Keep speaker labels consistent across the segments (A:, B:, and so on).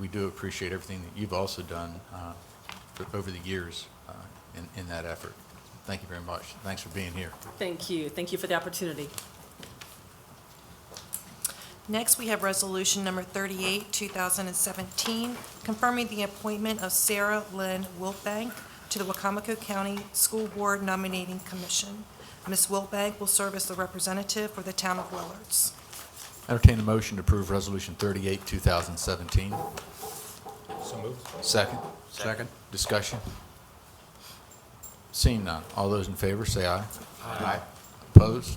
A: we do appreciate everything that you've also done uh, for- over the years uh, in in that effort. Thank you very much. Thanks for being here.
B: Thank you. Thank you for the opportunity.
C: Next, we have Resolution Number 38, 2017, confirming the appointment of Sarah Lynn Wilbank to the Wacomico County School Board Nominating Commission. Ms. Wilbank will serve as the representative for the town of Willards.
A: Entertain a motion to approve Resolution 38, 2017.
D: So moved.
A: Second? Second. Discussion? Seeing none, all those in favor say aye. Aye. Opposed?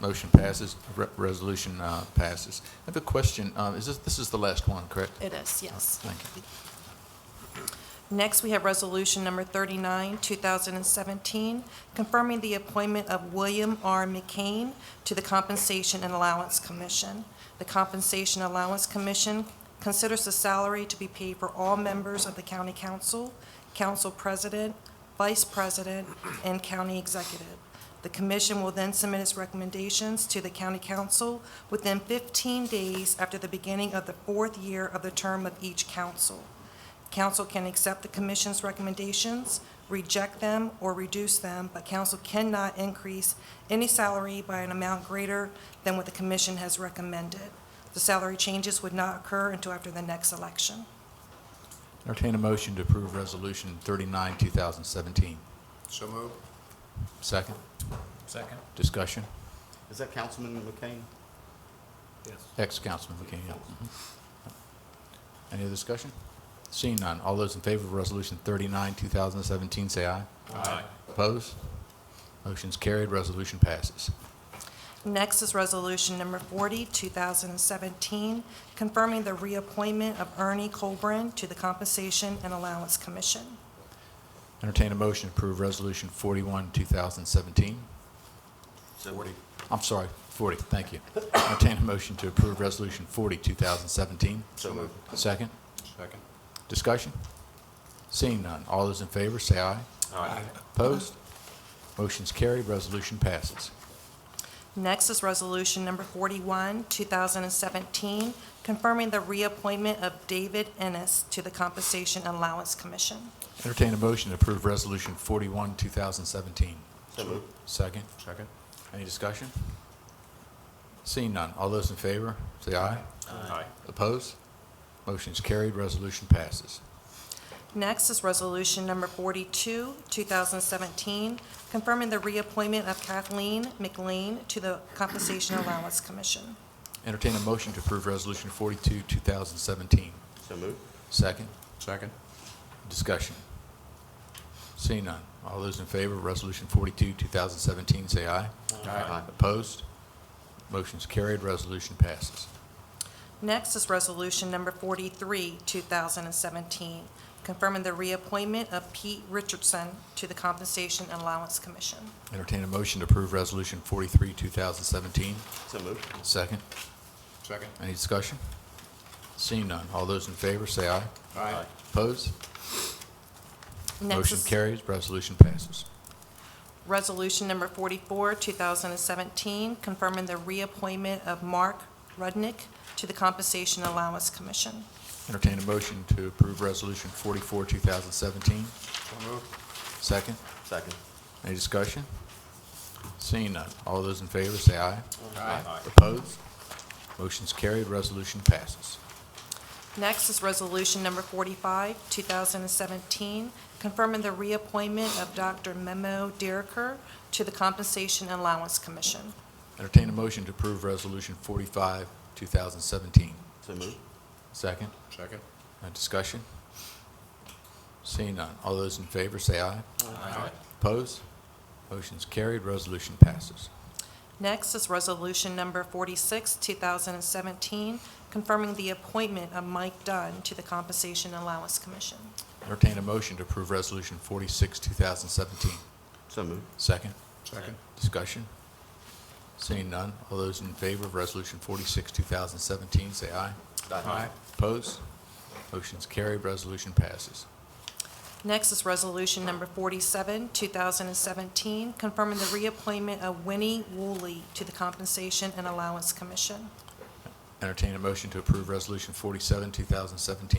A: Motion passes, Re- resolution uh, passes. I have a question, Um, is this, this is the last one, correct?
C: It is, yes.
A: Thank you.
C: Next, we have Resolution Number 39, 2017, confirming the appointment of William R. McCain to the Compensation and Allowance Commission. The Compensation Allowance Commission considers the salary to be paid for all members of the county council, council president, vice president, and county executive. The commission will then submit its recommendations to the county council within 15 days after the beginning of the fourth year of the term of each council. Council can accept the commission's recommendations, reject them, or reduce them, but council cannot increase any salary by an amount greater than what the commission has recommended. The salary changes would not occur until after the next election.
A: Entertain a motion to approve Resolution 39, 2017.
D: So moved.
A: Second?
D: Second?
A: Discussion?
E: Is that Councilman McCain?
D: Yes.
A: Ex-Councilman McKeon, yeah. Mhm. Any other discussion? Seeing none, all those in favor of Resolution 39, 2017, say aye.
D: Aye.
A: Opposed? Motion's carried, resolution passes.
C: Next is Resolution Number 40, 2017, confirming the reappointment of Ernie Colburn to the Compensation and Allowance Commission.
A: Entertain a motion to approve Resolution 41, 2017.
E: Forty.
A: I'm sorry, 40, thank you. Entertain a motion to approve Resolution 40, 2017.
E: So moved.
A: Second,
D: Second?
A: discussion? Seeing none, all those in favor, say aye.
D: Aye.
A: Opposed? Motion's carried, resolution passes.
C: Next is Resolution Number 41, 2017, confirming the reappointment of David Ennis to the Compensation and Allowance Commission.
A: Entertain a motion to approve Resolution 41, 2017.
E: So moved.
A: Second? Second. Any discussion? Seeing none, all those in favor, say aye.
D: Aye.
A: Opposed? Motion is carried, resolution passes.
C: Next is Resolution Number 42, 2017, confirming the reappointment of Kathleen McLean to the Compensation and Allowance Commission.
A: Entertain a motion to approve Resolution 42, 2017.
E: So moved.
A: Second?
D: Second?
A: Discussion. Seeing none, all those in favor of Resolution 42, 2017, say aye.
E: Aye.
A: Opposed? Motion is carried, resolution passes.
C: Next is Resolution Number 43, 2017, confirming the reappointment of Pete Richardson to the Compensation and Allowance Commission.
A: Entertain a motion to approve Resolution 43, 2017.
E: So moved.
A: Second.
D: Second?
A: Any discussion? Seeing none, all those in favor say aye.
D: Aye.
A: Opposed?
C: Next
A: Motion
C: is-
A: carries, resolution passes.
C: Resolution number 44, 2017, confirming the reappointment of Mark Rudnick to the Compensation Allowance Commission.
A: Entertain a motion to approve Resolution 44, 2017.
D: So moved.
A: Second.
E: Second.
A: Any discussion? Seeing none, all those in favor say aye.
D: Aye.
A: Opposed? Motion's carried, resolution passes.
C: Next is Resolution number 45, 2017, confirming the reappointment of Dr. Memo Dericker to the Compensation Allowance Commission.
A: Entertain a motion to approve Resolution 45, 2017.
E: So moved.
A: Second.
D: Second?
A: Uh, Discussion? Seeing none, all those in favor say aye.
D: Aye.
A: Opposed? Motion's carried, resolution passes.
C: Next is Resolution number 46, 2017, confirming the appointment of Mike Dunn to the Compensation Allowance Commission.
A: Entertain a motion to approve Resolution 46, 2017.
E: So moved.
A: Second.
D: Second?
A: Discussion? Seeing none, all those in favor of Resolution 46, 2017, say aye.
D: Aye.
A: Opposed? Motion's carried, resolution passes.
C: Next is Resolution Number 47, 2017, confirming the reappointment of Winnie Woolley to the Compensation and Allowance Commission.
A: Entertain a motion to approve Resolution 47, 2017.